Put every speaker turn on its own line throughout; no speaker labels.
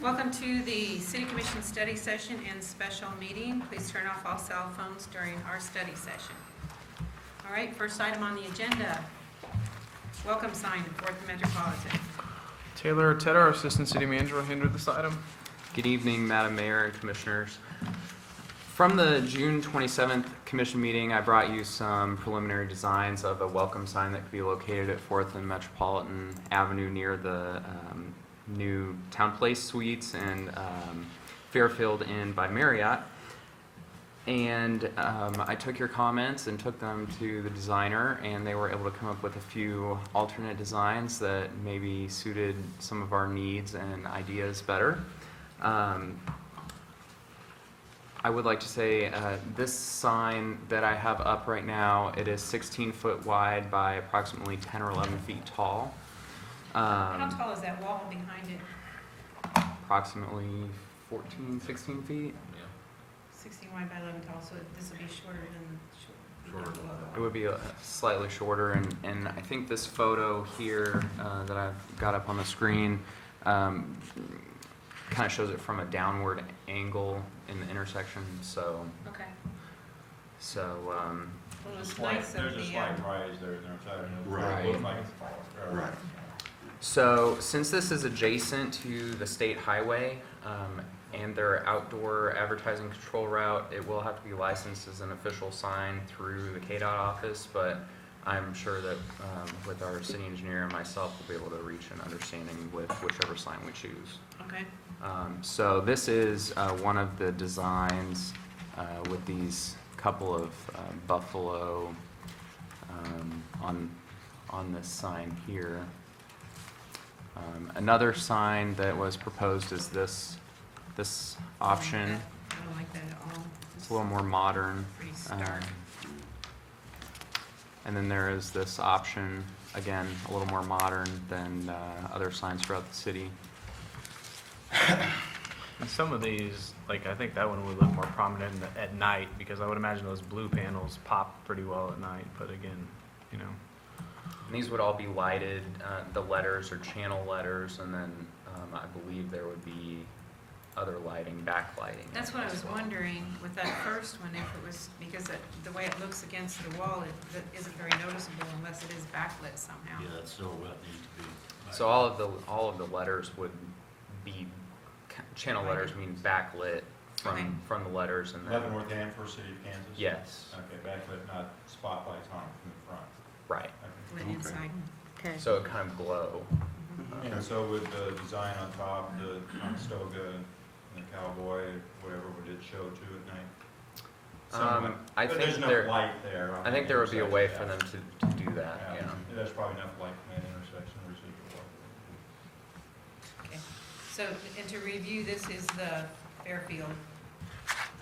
Welcome to the City Commission Study Session and Special Meeting. Please turn off all cell phones during our study session. All right, first item on the agenda, welcome sign to Fourth Metropolitan.
Taylor Tedder, our Assistant City Manager, will handle this item.
Good evening, Madam Mayor and Commissioners. From the June 27th Commission meeting, I brought you some preliminary designs of a welcome sign that could be located at Fourth and Metropolitan Avenue near the um, new Town Place Suites and um, Fairfield Inn by Marriott. And um, I took your comments and took them to the designer, and they were able to come up with a few alternate designs that maybe suited some of our needs and ideas better. Um, I would like to say, uh, this sign that I have up right now, it is 16 foot wide by approximately 10 or 11 feet tall.
How
Um,
tall is that wall behind it?
Approximately 14, 16 feet.
Sixteen wide by eleven tall, so this will be shorter than. short-
Shorter than that.
It would be uh, slightly shorter, and, and I think this photo here uh, that I've got up on the screen kind of shows it from a downward angle in the intersection, so,
Okay.
so, um,
Well, it
There's a
was
slight,
nice
there's
of
a
the,
slight
uh,
rise there, there, so
Right.
it looks like it's falling.
Right.
So, since this is adjacent to the state highway um, and their outdoor advertising control route, it will have to be licensed as an official sign through the KDOT office, but I'm sure that um, with our city engineer and myself, we'll be able to reach an understanding with whichever sign we choose.
okay,
Um, So this is uh, one of the designs uh, with these couple of uh, buffalo um, on, on this sign here. Um, Another sign that was proposed is this, this option.
I don't like that at all.
It's a little more modern.
Pretty
um,
stark.
And then there is this option, again, a little more modern than uh, other signs throughout the city.
And some of these, like I think that one would look more prominent in the- at night because I would imagine those blue panels pop pretty well at night. But again, you know,
And These would all be lighted, uh, the letters or channel letters, and then um, I believe there would be other lighting, backlighting.
That's what I
as
was
well.
wondering with that first one, if it was, because it- the way it looks against the wall, it that isn't very noticeable unless it is backlit somehow.
Yeah, that's still what it needs to be.
So all of the, all of the letters would be, ca- channel
Lighted.
letters mean backlit
Okay.
from, from the letters and then,
Leavenworth and First City of Kansas?
yes,
Okay, backlit, not spotlights on from the front.
right.
Lit
Okay.
inside.
Okay.
So it kind of glow. Um,
Okay. And so with the design on top, the Conestoga and the cowboy, whatever, would it show too at night? Somewhat.
Um, I
But
think
there's enough
there,
light there. on
I think
the
there would be a way for
intersection,
them to, to do that,
Yeah,
yeah.
Yeah, there's probably enough light from that intersection, residual light.
So, and to review, this is the Fairfield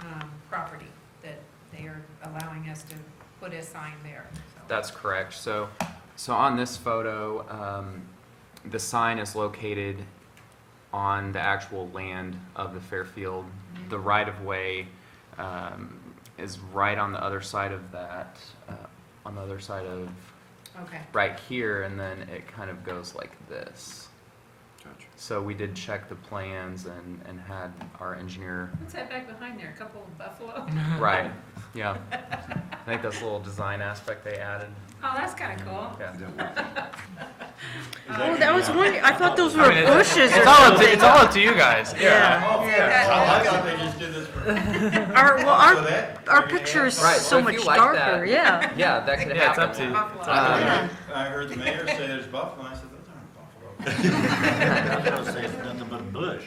um, property that they are allowing us to put a sign there. so.
That's correct. So, so on this photo, um, the sign is located on the actual land of the Fairfield. The right-of-way, um, is right on the other side of that, uh, on the other side of,
Okay,
right here, and then it kind of goes like this.
Gotcha.
So we did check the plans and, and had our engineer,
what's that back behind there, a couple of buffalo?
right, yeah. I think that's a little design aspect they added.
Oh, that's kind of cool.
Yeah.
Oh, that was one, I thought those were
I mean, it's-
bushes or
It's all up to,
something.
it's all up to you guys.
Yeah,
yeah.
Oh, I like how they just did this for.
our, well,
So
our,
that-
our
I mean,
picture is
Right, so
so
if you
much
like that-
darker, yeah.
Yeah, that could happen.
Yeah, it's up to you.
Buffalo.
I
Uh,
heard- I heard the mayor say there's buffalo, and I said, those aren't buffalo.
I was saying, it's nothing but a bush.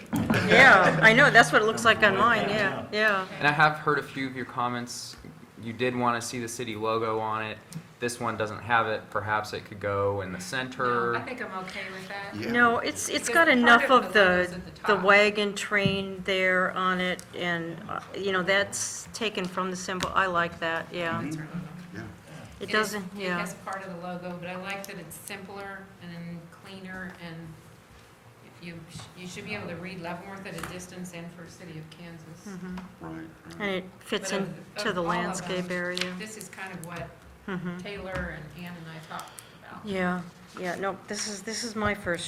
Yeah, I know, that's what it looks like on mine, yeah, yeah.
And I have heard a few of your comments. You did want to see the city logo on it. This one doesn't have it. Perhaps it could go in the
No, I
center.
think I'm okay with that.
Yeah.
No, it's,
Because
it's got
part
enough
of
of
the windows
the,
at the
the
top.
wagon train there on it, and, uh, you know, that's taken from the symbol, I like that, yeah.
That's our logo.
Yeah.
It doesn't,
It
yeah,
has part of the logo, but I like that it's simpler and cleaner, and if you, you should be able to read Leavenworth at a distance and for City of Kansas.
Mm-hmm.
Right,
and
right.
it fits
But of-
into
of
the
all of
landscape
them.
area.
This is kind of what
Mhm.
Taylor and Ann and I talked about.
Yeah, yeah, no, this is, this is my first